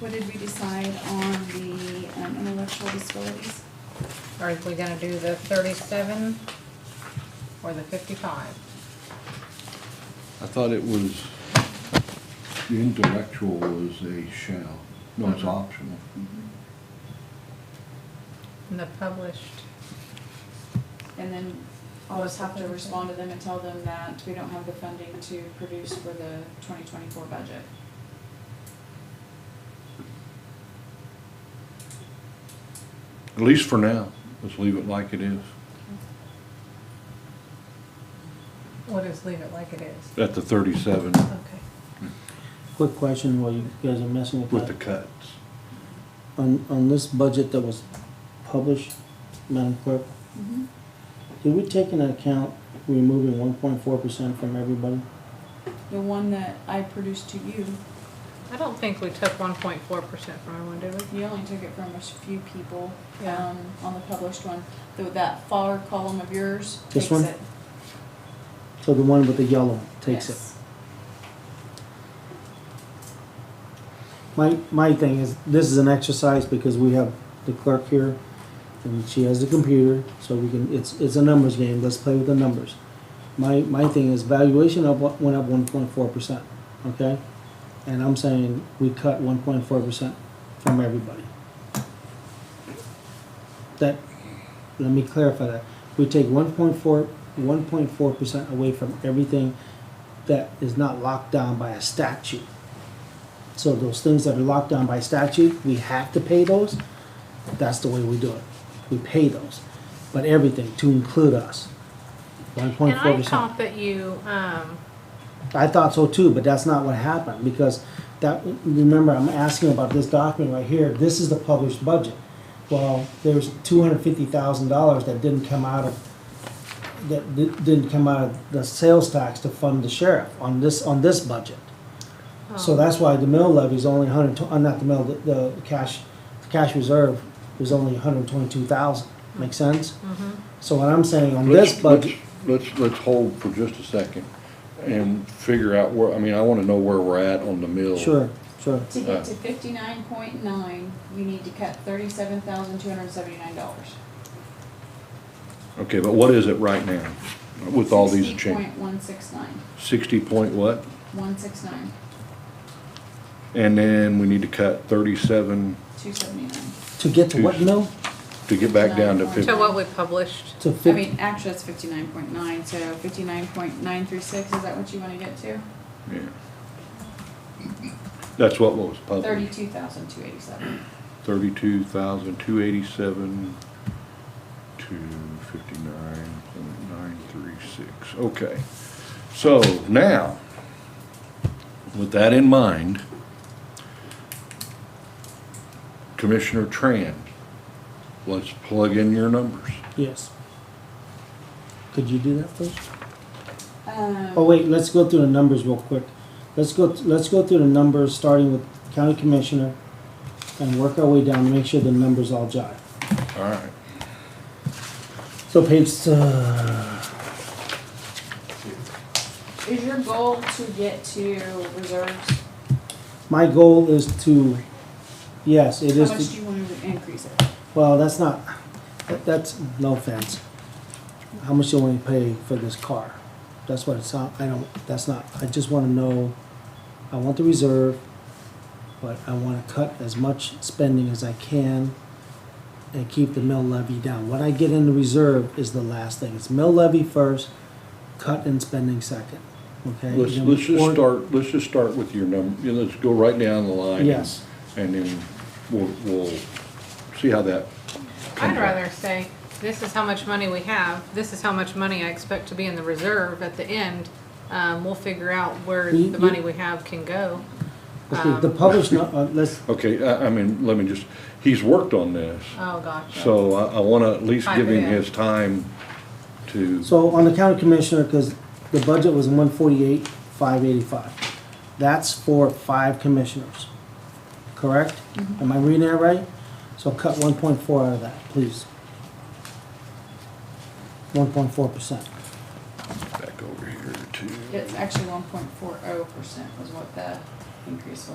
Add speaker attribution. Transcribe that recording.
Speaker 1: What did we decide on the um, intellectual disabilities?
Speaker 2: Are we gonna do the thirty-seven or the fifty-five?
Speaker 3: I thought it was, the intellectual was a shall, no, it's optional.
Speaker 2: And the published,
Speaker 1: And then I'll just have to respond to them and tell them that we don't have the funding to produce for the twenty twenty-four budget.
Speaker 3: At least for now, let's leave it like it is,
Speaker 2: we'll just leave it like it is.
Speaker 3: at the thirty-seven
Speaker 2: Okay.
Speaker 4: Quick question while you guys are messing with
Speaker 3: with the
Speaker 4: that.
Speaker 3: cuts.
Speaker 4: On, on this budget that was published, Madam Clerk, did we take into account removing one point four percent from everybody?
Speaker 1: The one that I produced to you,
Speaker 2: I don't think we took one point four percent from everyone, did we?
Speaker 1: you only took it from a few people,
Speaker 2: Yeah.
Speaker 1: um, on the published one. Though that far column of yours
Speaker 4: This
Speaker 1: takes
Speaker 4: one?
Speaker 1: it.
Speaker 4: So the one with the yellow takes it.
Speaker 1: Yes.
Speaker 4: My, my thing is, this is an exercise because we have the clerk here and she has the computer, so we can, it's, it's a numbers game, let's play with the numbers. My, my thing is valuation up, one- went up one point four percent, okay? And I'm saying we cut one point four percent from everybody. That, let me clarify that. We take 1.4 percent away from everything that is not locked down by a statute. So those things that are locked down by statute, we have to pay those. That's the way we do it. We pay those. But everything to include us. One point
Speaker 2: And
Speaker 4: four
Speaker 2: I
Speaker 4: percent.
Speaker 2: thought that you, um,
Speaker 4: I thought so too, but that's not what happened because that, remember, I'm asking about this document right here. This is the published budget. Well, there's two hundred fifty thousand dollars that didn't come out of, that di- didn't come out of the sales tax to fund the sheriff on this, on this budget. So
Speaker 2: um,
Speaker 4: that's why the mill levy is only hundred, uh, not the mill, the, the cash, the cash reserve was only hundred and twenty-two thousand, make sense? So what I'm saying on this
Speaker 3: Let's- let's-
Speaker 4: budget,
Speaker 3: Let's, let's hold for just a second and figure out where, I mean, I wanna know where we're at on the mill.
Speaker 4: sure, sure,
Speaker 1: To get to fifty-nine point nine, you need to cut thirty-seven thousand two hundred and seventy-nine dollars.
Speaker 3: Okay, but what is it right now with all these changes?
Speaker 1: Sixty point one six nine,
Speaker 3: Sixty point what?
Speaker 1: one six nine,
Speaker 3: And then we need to cut thirty-seven
Speaker 1: two seventy-nine.
Speaker 4: to get to what mill?
Speaker 3: to get back down to
Speaker 1: To
Speaker 3: fifty.
Speaker 2: to what we published,
Speaker 4: To
Speaker 1: I
Speaker 4: fifty,
Speaker 1: mean, actually, it's fifty-nine point nine, so fifty-nine point nine three six, is that what you wanna get to?
Speaker 3: Yeah. That's what was published,
Speaker 1: Thirty-two thousand two eighty-seven.
Speaker 3: thirty-two thousand, two eighty-seven, two fifty-nine point nine three six, okay. So now, with that in mind, Commissioner Tran, let's plug in your numbers.
Speaker 4: yes. Could you do that first? Oh,
Speaker 1: Um,
Speaker 4: wait, let's go through the numbers real quick. Let's go, let's go through the numbers, starting with county commissioner, and work our way down, to make sure the numbers all jive.
Speaker 3: All right,
Speaker 4: So page, uh,
Speaker 1: is your goal to get to reserves?
Speaker 4: my goal is to, yes, it
Speaker 1: How
Speaker 4: is.
Speaker 1: much
Speaker 4: to-
Speaker 1: do you wanna increase it?
Speaker 4: Well, that's not, that- that's, no offense. How much do you want to pay for this car? That's what it's, not- I don't, that's not, I just want to know, I want the reserve, but I want to cut as much spending as I can and keep the mill levy down. What I get in the reserve is the last thing. It's mill levy first, cut and spending second, okay?
Speaker 3: let's,
Speaker 4: You know,
Speaker 3: let's just
Speaker 4: or-
Speaker 3: start, let's just start with your number, let's go right down the line.
Speaker 4: Yes.
Speaker 3: And then we'll, we'll see how that comes
Speaker 2: I'd
Speaker 3: out.
Speaker 2: rather say, this is how much money we have, this is how much money I expect to be in the reserve at the end. Um, we'll figure out where
Speaker 4: You-
Speaker 2: the
Speaker 4: you-
Speaker 2: money we have can go.
Speaker 4: okay, The published, nu- uh, let's,
Speaker 3: Okay, I, I mean, let me just, he's worked on this,
Speaker 2: Oh, gosh.
Speaker 3: so I, I wanna at least give him
Speaker 2: Yeah.
Speaker 3: his time to,
Speaker 4: So on the county commissioner, because the budget was one forty-eight, five eighty-five. That's for five commissioners, correct? Am I reading that right? So cut one point four out of that, please. One point four percent.
Speaker 3: back over here to.
Speaker 1: It's actually one point four oh percent was what the increase was.